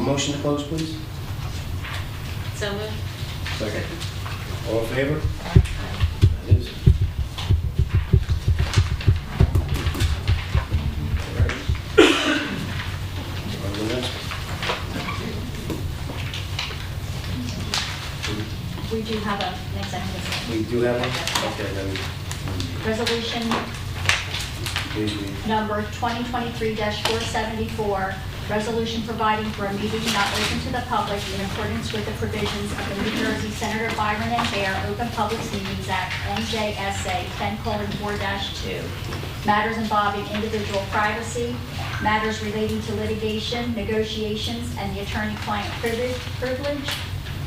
motion to close, please? So moved. Second. All in favor? That is. All right. On to the next one. We do have a, an executive session. We do have one? Okay, then, Resolution please, we, number 2023-474, resolution providing for a meeting not open to the public in accordance with the provisions of the New Jersey Senator Byron and Bear Open Public Meetings Act, NJSA 10:4-2, matters involving individual privacy, matters relating to litigation, negotiations, and the attorney-client privi- privilege,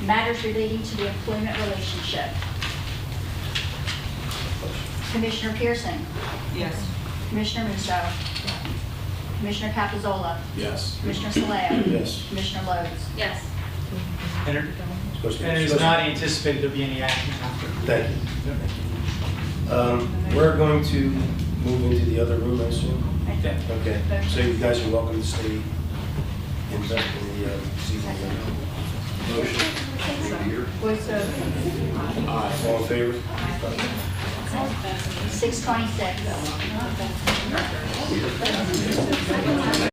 matters relating to the employment relationship. Commissioner Pearson? Yes. Commissioner Musso. Commissioner Capizola. Yes. Commissioner Saleo. Yes. Commissioner Lodes. Yes. And it- it's supposed to be- and it is not anticipated there'll be any action after. Thank you. Um, We're going to move into the other room, I assume? Okay. Okay, so you guys are welcome to stay in the, in the, uh, season. Motion. Repeater. Voice vote. Aye. All in favor? 626.